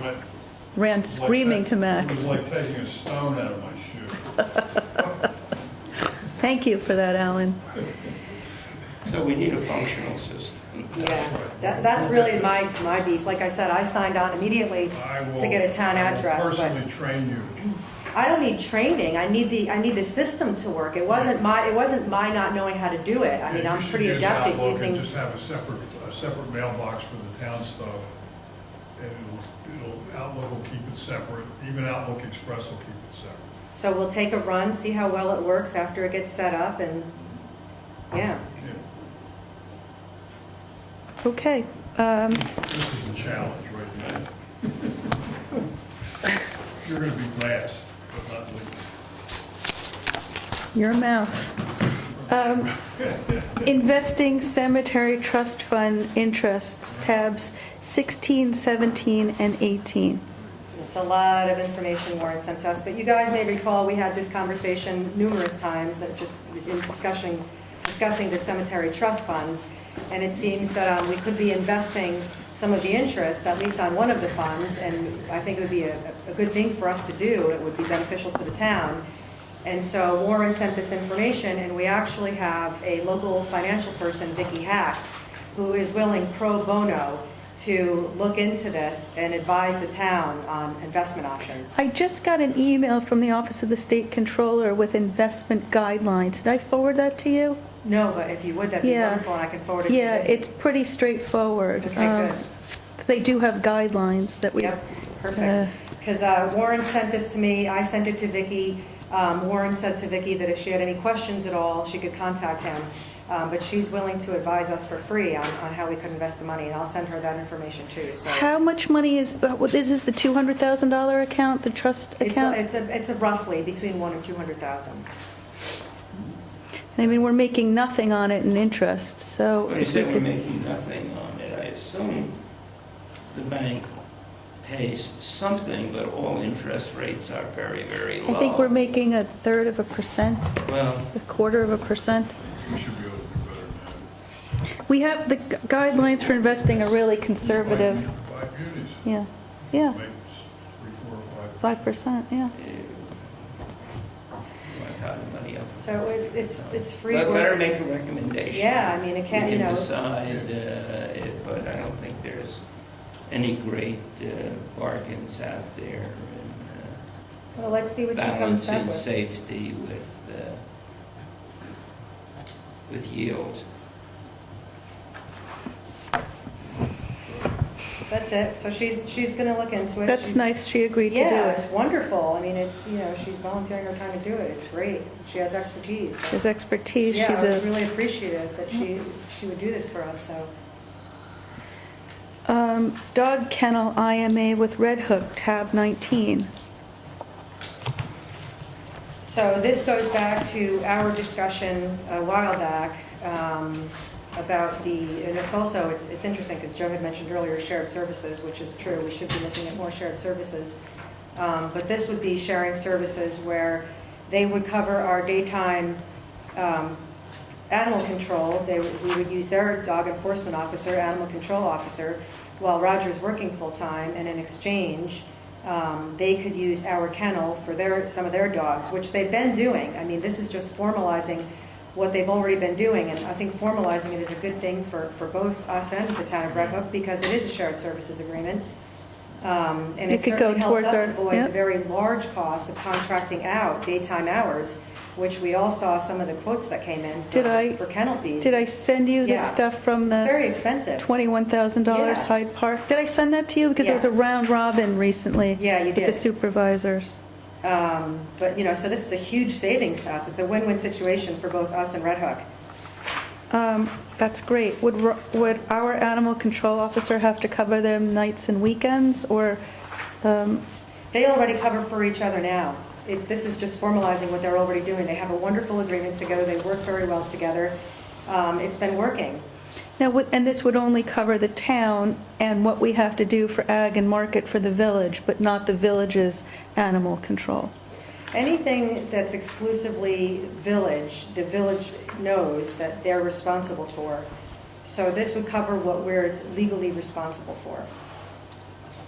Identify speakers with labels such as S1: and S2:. S1: went.
S2: ran screaming
S1: like
S2: to
S1: that.
S2: Mac.
S1: It was like taking a stone out of my shoe.
S2: Thank you for that, Alan.
S3: So we need a functional system.
S4: Yeah, that, that's really my, my beef. Like I said, I signed on immediately
S1: I will.
S4: to get a town
S1: I will
S4: address, but
S1: Personally train you.
S4: I don't need training. I need the, I need the system to work. It wasn't my, it wasn't my not knowing how to do it. I mean,
S1: Yeah, you
S4: I'm
S1: should
S4: pretty
S1: use
S4: adept at
S1: Outlook and
S4: using,
S1: Just have a separate, a separate mailbox for the town stuff. And it'll, it'll, Outlook will keep it separate, even Outlook Express will keep it separate.
S4: so we'll take a run, see how well it works after it gets set up and, yeah.
S1: Yeah,
S2: Okay, um,
S1: This is a challenge right now. You're gonna be last, but not least.
S2: your mouth. Um, Investing Cemetery Trust Fund interests, tabs 16, 17, and 18.
S4: It's a lot of information Warren sent us, but you guys may recall, we had this conversation numerous times, uh, just in discussing, discussing the cemetery trust funds, and it seems that um, we could be investing some of the interest, at least on one of the funds, and I think it would be a, a good thing for us to do, it would be beneficial to the town. And so Warren sent this information, and we actually have a local financial person, Vicky Hack, who is willing pro bono to look into this and advise the town on investment options.
S2: I just got an email from the Office of the State Controller with investment guidelines. Did I forward that to you?
S4: No, but if you would, that'd be
S2: Yeah.
S4: wonderful, and I can forward it to you.
S2: Yeah, it's pretty straightforward.
S4: Okay,
S2: Um,
S4: good.
S2: They do have guidelines that we,
S4: Yep,
S2: Uh,
S4: perfect. Because Warren sent this to me, I sent it to Vicky. Um, Warren said to Vicky that if she had any questions at all, she could contact him. Um, But she's willing to advise us for free on, on how we could invest the money, and I'll send her that information too, so.
S2: how much money is, uh, what- is this the $200,000 account, the trust
S4: It's a,
S2: account?
S4: it's a, it's a roughly between one and 200,000.
S2: I mean, we're making nothing on it in interest, so.
S3: When you
S2: if
S3: say
S2: we
S3: we're
S2: could-
S3: making nothing on it, I assume the bank pays something, but all interest rates are very, very
S2: I
S3: low.
S2: think we're making a third of a percent,
S3: Well,
S2: a quarter of a percent.
S1: You should be able to do better than that.
S2: We have, the gu- guidelines for investing are really conservative.
S1: Buy beauties.
S2: Yeah, yeah,
S1: Make three, four, or five.
S2: 5%, yeah.
S3: eh, I thought the money up.
S4: So it's, it's, it's free.
S3: Let let her
S4: work.
S3: make a recommendation.
S4: Yeah, I mean, it
S3: We
S4: can't, you
S3: can
S4: know,
S3: decide, uh, it- but I don't think there's any great uh, bargains out there. and, uh,
S4: well, let's see what she comes up
S3: balancing
S4: with.
S3: safety with, uh, with yield.
S4: That's it. So she's, she's going to look into it.
S2: That's
S4: She's-
S2: nice, she agreed to do
S4: Yeah,
S2: it.
S4: it's wonderful. I mean, it's, you know, she's volunteering her time to do it. It's great. She has expertise. so-
S2: There's expertise,
S4: Yeah,
S2: she's
S4: I was
S2: a,
S4: really appreciative that she, she would do this for us, so.
S2: um, dog kennel IMA with Red Hook, tab 19.
S4: So this goes back to our discussion a while back um, about the, and it's also, it's, it's interesting because Joe had mentioned earlier shared services, which is true, we should be looking at more shared services. Um, But this would be sharing services where they would cover our daytime um, animal control. They, would- we would use their dog enforcement officer, animal control officer, while Roger's working full-time, and in exchange, um, they could use our kennel for their, some of their dogs, which they've been doing. I mean, this is just formalizing what they've already been doing, and I think formalizing it is a good thing for, for both us and the town of Red Hook, because it is a shared services agreement. Um, And
S2: It
S4: it
S2: could go
S4: certainly helps
S2: towards our-
S4: us avoid
S2: yep.
S4: the very large cost of contracting out daytime hours, which we all saw some of the quotes that came in for-
S2: Did I-
S4: for kennel fees.
S2: Did I send you the
S4: Yeah.
S2: stuff from
S4: It's
S2: the
S4: very expensive.
S2: $21,000
S4: Yeah.
S2: Hyde Park? Did I send that to you? Because there was a
S4: Yeah.
S2: round robin recently.
S4: Yeah, you
S2: With the
S4: did.
S2: supervisors.
S4: Um, But, you know, so this is a huge savings to us. It's a win-win situation for both us and Red Hook.
S2: Um, That's great. Would, ro- would our animal control officer have to cover them nights and weekends, or, um,
S4: They already cover for each other now. It- This is just formalizing what they're already doing. They have a wonderful agreement together. They work very well together. Um, It's been working.
S2: now, would- and this would only cover the town and what we have to do for ag and market for the village, but not the village's animal control?
S4: Anything that's exclusively village, the village knows that they're responsible for. So this would cover what we're legally responsible for.